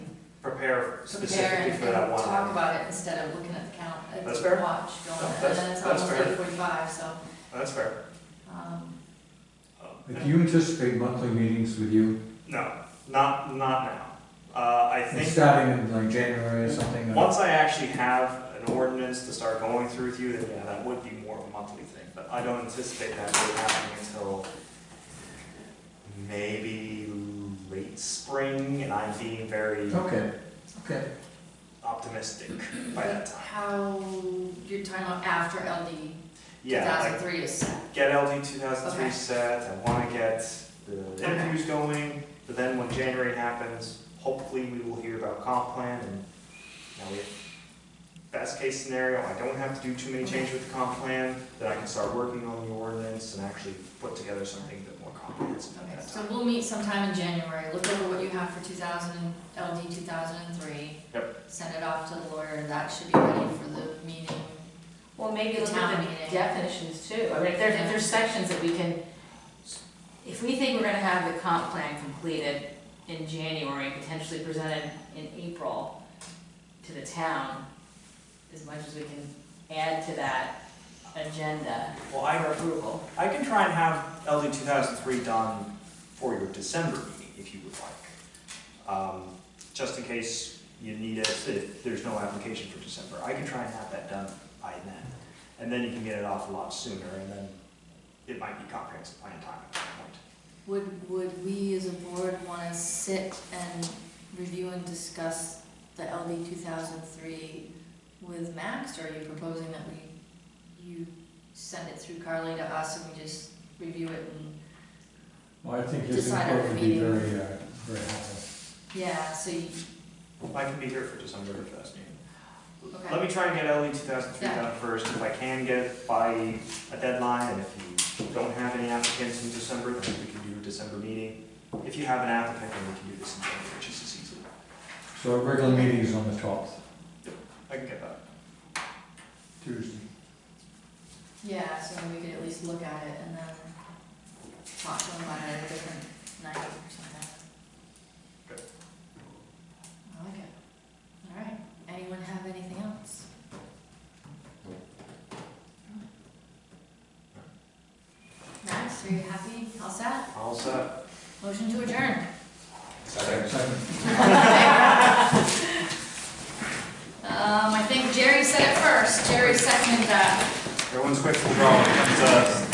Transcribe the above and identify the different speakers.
Speaker 1: prepare
Speaker 2: compare
Speaker 1: specifically
Speaker 2: and
Speaker 1: for that
Speaker 2: and
Speaker 1: one.
Speaker 2: talk about it instead of looking at the count, at
Speaker 1: That's
Speaker 2: the
Speaker 1: fair.
Speaker 2: watch going,
Speaker 1: No,
Speaker 2: and
Speaker 1: that's-
Speaker 2: then it's
Speaker 1: that's
Speaker 2: almost
Speaker 1: fair.
Speaker 2: eight forty-five, so,
Speaker 1: Oh, That's fair.
Speaker 2: um,
Speaker 3: Do you anticipate monthly meetings with you,
Speaker 1: No, not, not now. Uh, I think.
Speaker 3: starting in like January or something? or-
Speaker 1: Once I actually have an ordinance to start going through with you, then yeah, that would be more of a monthly thing, but I don't anticipate that really happening until maybe late spring, and I'm being very
Speaker 3: Okay, okay.
Speaker 1: optimistic by that time.
Speaker 2: how, your timeline after LD two
Speaker 1: Yeah,
Speaker 2: thousand
Speaker 1: like,
Speaker 2: three is set,
Speaker 1: get LD two thousand three
Speaker 2: Okay.
Speaker 1: set, I wanna get the interviews going, but then when January happens, hopefully we will hear about comp plan, and now we have best case scenario, I don't have to do too many changes with the comp plan, then I can start working on the ordinance and actually put together something a bit more comprehensive at
Speaker 2: okay,
Speaker 1: that
Speaker 2: so
Speaker 1: time.
Speaker 2: we'll meet sometime in January, look over what you have for two thousand and, LD two thousand and three.
Speaker 1: Yep.
Speaker 2: Send it off to the lawyer, and that should be ready for the meeting,
Speaker 4: Well, maybe
Speaker 2: The
Speaker 4: look
Speaker 2: town
Speaker 4: at
Speaker 2: meeting.
Speaker 4: the definitions too, I mean, if there's, if there's sections that we can, if we think we're gonna have the comp plan completed in January, and potentially presented in April to the town, as much as we can add to that agenda
Speaker 1: Well,
Speaker 4: for
Speaker 1: I,
Speaker 4: approval.
Speaker 1: I can try and have LD two thousand three done for your December meeting, if you would like. Um, Just in case you need it, if there's no application for December, I can try and have that done by then. And then you can get it off a lot sooner, and then it might be comprehensive plan time at that point.
Speaker 2: Would, would we as a board wanna sit and review and discuss the LD two thousand three with Max, or are you proposing that we, you send it through Carly to us and we just review it and,
Speaker 3: Well, I think his
Speaker 2: Decide on
Speaker 3: input
Speaker 2: the
Speaker 3: would be
Speaker 2: meeting.
Speaker 3: very, uh, very helpful.
Speaker 2: yeah, so you,
Speaker 1: I can be here for December if that's needed.
Speaker 2: Okay.
Speaker 1: Let me try and get LE two thousand three
Speaker 2: Yeah.
Speaker 1: done first, if I can get it by a deadline, and if you don't have any applicants in December, then we can do a December meeting. If you have an applicant, then we can do this in January, just as easily.
Speaker 3: So our regular meeting is on the twelfth,
Speaker 1: I can get that.
Speaker 3: Tuesday.
Speaker 2: yeah, so we could at least look at it and then talk to them about it at a different night or something.
Speaker 1: Good.
Speaker 2: I like it. All right, anyone have anything else? Max, are you happy? All set?
Speaker 1: All set.
Speaker 2: Motion to adjourn.
Speaker 3: Second.
Speaker 2: Um, I think Jerry said it first. Jerry seconded that.
Speaker 1: Everyone's quick to the draw when it comes to us.